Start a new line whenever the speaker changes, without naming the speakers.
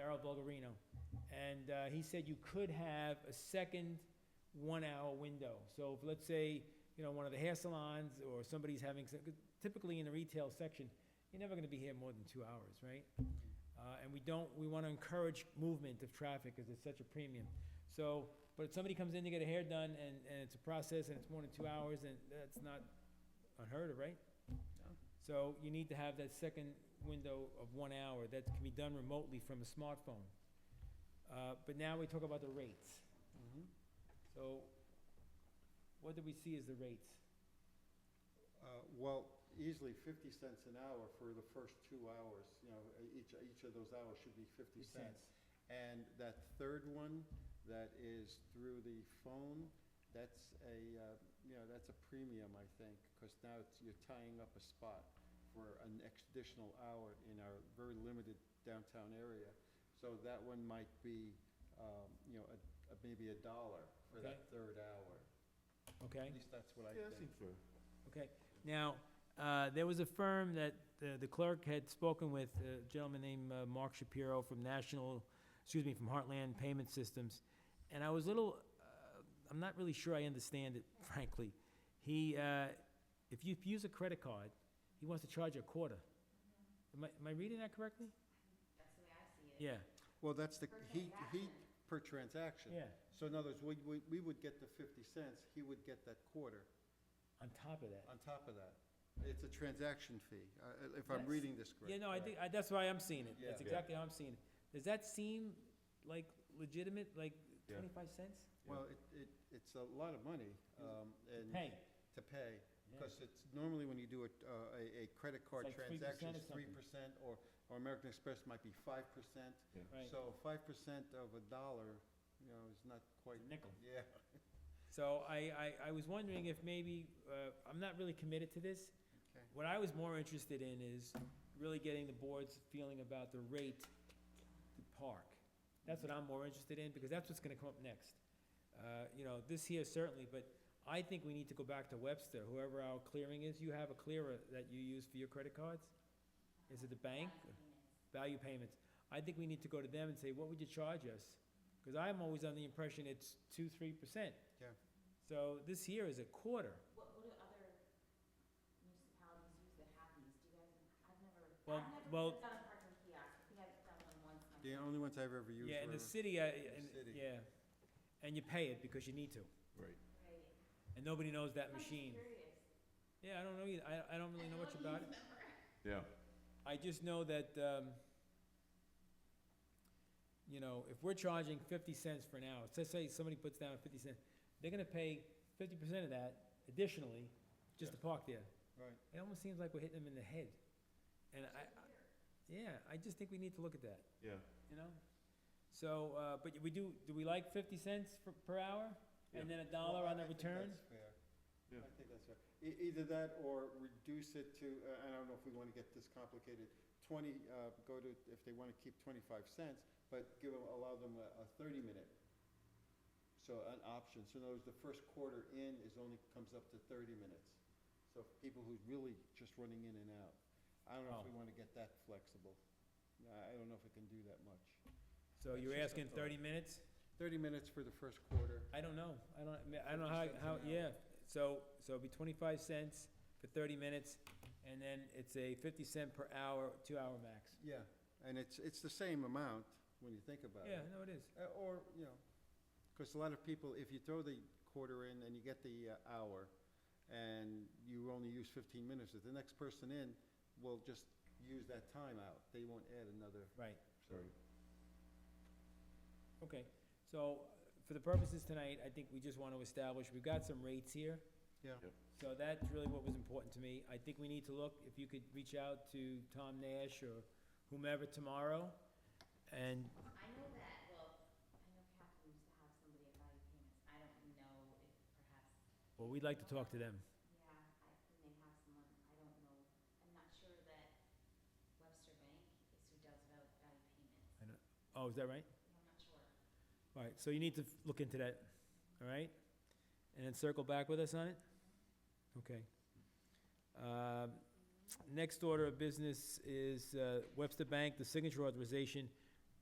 Errol Bulgarino, and uh, he said you could have a second one-hour window. So if, let's say, you know, one of the hair salons or somebody's having, some- 'cause typically in the retail section, you're never gonna be here more than two hours, right? Uh, And we don't, we wanna encourage movement of traffic because it's such a premium. So, but if somebody comes in to get a hair done and, and it's a process and it's more than two hours, then that's not unheard of, right?
No.
So you need to have that second window of one hour that can be done remotely from a smartphone. Uh, But now we talk about the rates.
Mm-hmm.
So what do we see as the rates?
Uh, Well, easily 50 cents an hour for the first two hours, you know, e- each, each of those hours should be 50 cents. And that third one, that is through the phone, that's a, uh, you know, that's a premium, I think, because now it's, you're tying up a spot for an ex- additional hour in our very limited downtown area. So that one might be, um, you know, a- a- maybe a dollar for that third hour.
Okay,
At least that's what I
Yeah, that
think.
seems fair.
okay. Now, uh, there was a firm that uh, the clerk had spoken with, a gentleman named uh, Mark Shapiro from National, excuse me, from Heartland Payment Systems. And I was a little, uh, I'm not really sure I understand it frankly. He, uh, if you use a credit card, he wants to charge you a quarter. Am I, am I reading that correctly?
That's the way I see it.
Yeah,
Well, that's the,
Per
he, he,
transaction.
per transaction.
yeah,
So in other words, we, we, we would get the fifty cents, he would get that quarter
on top of that.
on top of that. It's a transaction fee, uh, if I'm
Yes.
reading this correctly.
Yeah, no, I think, I, that's why I'm seeing it. That's
Yeah.
Yeah.
exactly how I'm seeing it. Does that seem like legitimate, like
Yeah.
twenty-five cents?
Well, it, it, it's a lot of money, um, and.
Hey,
To pay,
Yeah.
because it's, normally when you do a, uh, a, a credit card
like 3%
transaction,
or
it's three percent, or, or American Express might be five percent.
right,
So five percent of a dollar, you know, is not quite,
it's a nickel.
yeah.
So I, I, I was wondering if maybe, uh, I'm not really committed to this.
Okay.
What I was more interested in is really getting the board's feeling about the rate to park. That's what I'm more interested in, because that's what's gonna come up next. Uh, you know, this here certainly, but I think we need to go back to Webster, whoever our clearing is. You have a clearer that you use for your credit cards? Is it the bank? value
Value payments.
payments. I think we need to go to them and say, what would you charge us? Because I'm always under the impression it's two, three percent.
Yeah.
So this here is a quarter.
What, what do other municipalities use that have these? Do you guys, I've never,
Well,
I've
well-
never done a parking kiosk. I think I've done one once. and I
The only ones I've ever used
Yeah, in
were-
the city, I,
the
and,
city.
yeah. And you pay it because you need to.
Right.
Right.
And nobody knows that
I'm just
machine.
curious.
Yeah, I don't know either. I, I don't really know much
don't
about it.
use them for-
Yeah,
I just know that, um, you know, if we're charging fifty cents for an hour, so say somebody puts down fifty cents, they're gonna pay fifty percent of that additionally, just to park there.
Right.
It almost seems like we're hitting them in the head. And I, I- yeah, I just think we need to look at that,
yeah.
you know? So, uh, but we do, do we like fifty cents for, per hour? And then a dollar on
Well, I-
the return?
I think that's fair.
Yeah.
I think that's fair. E- either that or reduce it to, uh, I don't know if we wanna get this complicated, twenty, uh, go to, if they wanna keep twenty-five cents, but give them, allow them a, a thirty-minute. So an option, so in other words, the first quarter in is only, comes up to thirty minutes. So for people who's really just running in and out. I don't know
Oh.
if we wanna get that flexible. I, I don't know if we can do that much.
So you're
That's just a
asking
thought.
thirty minutes?
Thirty minutes for the first quarter.
I don't know, I don't, I mean, I don't know how,
50 cents
how,
an hour.
yeah, so, so it'd be twenty-five cents for thirty minutes, and then it's a fifty cent per hour, two-hour max.
Yeah, and it's, it's the same amount when you think about
Yeah,
it.
no, it is,
Uh, Or, you know, because a lot of people, if you throw the quarter in and you get the uh, hour, and you only use fifteen minutes, if the next person in will just use that time out. They won't add another,
right,
so,
Right.
okay. So, for the purposes tonight, I think we just want to establish, we've got some rates here.
yeah.
Yep.
So that's really what was important to me. I think we need to look, if you could reach out to Tom Nash or whomever tomorrow, and,
I know that, well, I know Catherine used to have somebody at value payments. I don't know if perhaps,
well, we'd like to talk to them.
yeah, I, they may have someone, I don't know. I'm not sure that Webster Bank is who does val- value payments.
Oh, is that right?
I'm not sure.
All right, so you need to f- look into that, all right? And then circle back with us on it? Okay. uh, Um, Next order of business is uh, Webster Bank, the signature authorization